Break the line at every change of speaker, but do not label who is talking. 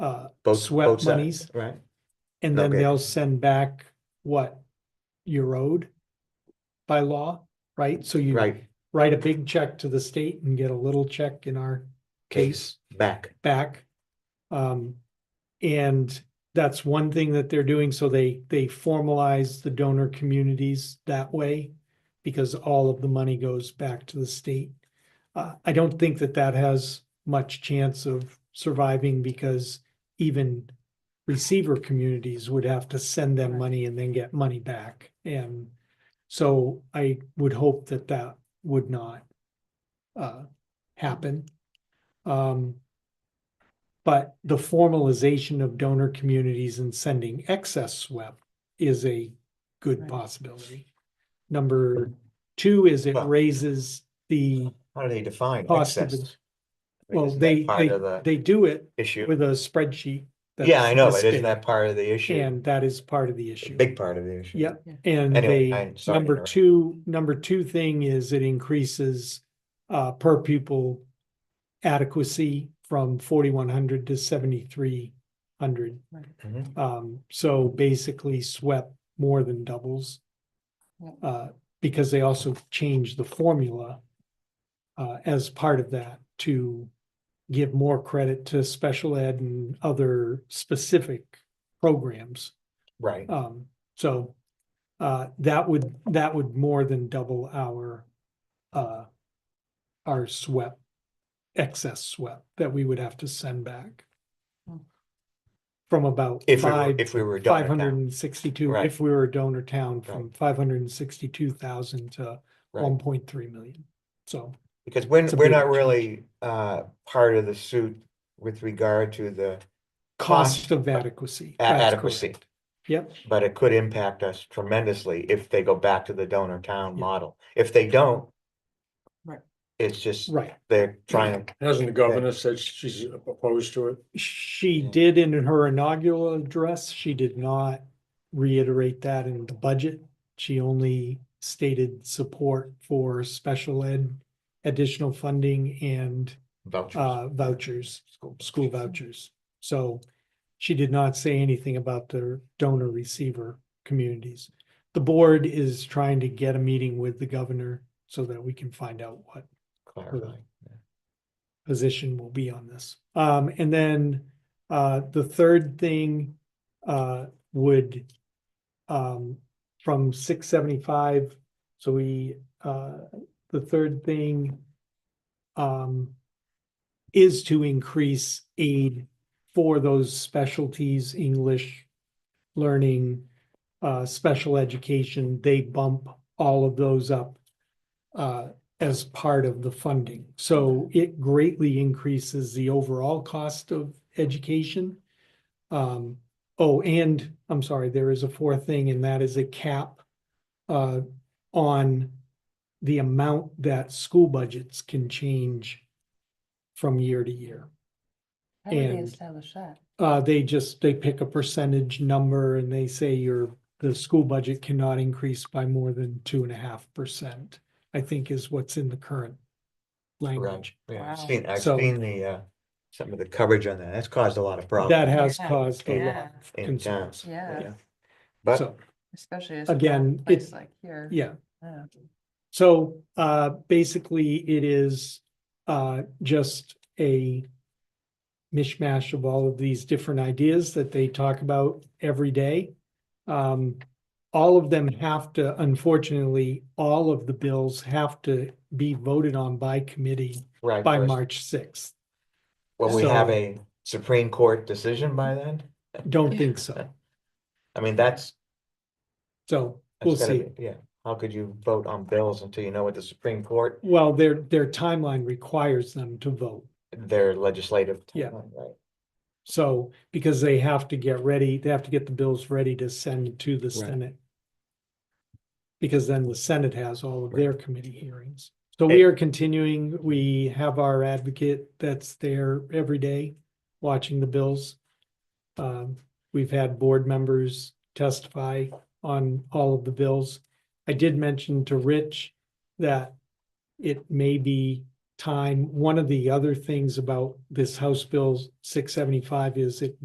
uh,
Both- both
swept
sides,
monies,
Right,
and then
Okay.
they'll send back what you owed by law, right? So you
right,
write a big check to the state and get a little check in our case
back,
back. Um, and that's one thing that they're doing, so they, they formalize the donor communities that way. Because all of the money goes back to the state. Uh, I don't think that that has much chance of surviving because even. Receiver communities would have to send them money and then get money back, and so I would hope that that would not. Uh, happen. Um, but the formalization of donor communities and sending excess SWEP is a good
Right.
possibility. Number two is it
Well-
raises the
how do they define
cost of
excess?
it.
I mean,
Well,
isn't that
they,
Part
they,
of the
they do it
issue,
with a spreadsheet.
yeah, I know,
that's
but isn't that
listed,
part of the issue?
And that is part of the issue.
Big part of the issue.
Yeah, And
Anyway,
they,
I'm sorry to
number
interrupt.
two, number two thing is it increases uh, per pupil adequacy from forty-one hundred to seventy-three hundred.
Mhm.
Um, so basically SWEP more than doubles.
Yep.
Uh, because they also changed the formula. Uh, as part of that to give more credit to special ed and other specific programs.
Right,
Um, so, uh, that would, that would more than double our, uh, our SWEP, excess SWEP that we would have to send back.
Hmm.
From about
if we were,
five
if we were done
five
with
hundred
that,
and sixty-two,
Right.
if we were a donor town, from five hundred and sixty-two thousand to one
right,
point three million. So,
because we're,
it's a
we're
big
not
change.
really, uh, part of the suit with regard to the
cost of adequacy.
a-
that's
adequacy.
correct. Yep,
But it could impact us tremendously if they go back to the donor town
Yeah.
model, if they don't.
Right.
It's just,
right.
they're trying, to
Hasn't the governor said she's opposed to it?
She
Yeah.
did in her inaugural address, she did not reiterate that in the budget. She only stated support for special ed, additional funding and
vouchers.
uh vouchers,
School
school vouchers. So she did not say anything about the donor receiver communities. The board is trying to get a meeting with the governor so that we can find out what
clarifying.
position will be on this. Um, and then, uh, the third thing, uh, would, um, from six seventy-five, so we, uh, the third thing, um, is to increase aid for those specialties, English learning, uh, special education, they bump all of those up, uh, as part of the funding. So it greatly increases the overall cost of education. Um, oh, and I'm sorry, there is a fourth thing, and that is a cap uh, on the amount that school budgets can change from year to year.
How did they
And-
establish that?
Uh, they just, they pick a percentage number and they say your, the school budget cannot increase by more than two and a half percent. I think is what's in the current language.
Yeah, I've
Wow.
seen, I've
So-
seen the, uh, some of the coverage on that. That's caused a lot of problems.
That has
Yeah.
caused a lot
Yeah.
of
In town.
concerns.
Yeah,
Yeah.
But
So,
especially as a
Again,
small
it-
place like here. Oh.
yeah,
Yeah.
so, uh, basically it is, uh, just a mishmash of all of these different ideas that they talk about every day. Um, all of them have to, unfortunately, all of the bills have to be voted on by committee
right.
by
first-
March sixth.
Will we have
so-
a Supreme Court decision by then?
Don't think so.
I mean, that's.
So
that's
we'll
gotta
see.
be- Yeah, how could you vote on bills until you know what the Supreme Court,
Well, their, their timeline requires them to vote.
their legislative?
Yeah.
timeline, Right,
So, because they have to get ready, they have to get the bills ready to send to the Senate. Because then the Senate has all of their committee hearings. So we are continuing, we have our advocate that's there every day watching the bills. Um, we've had board members testify on all of the bills. I did mention to Rich that it may be time, one of the other things about this House Bill six seventy-five is it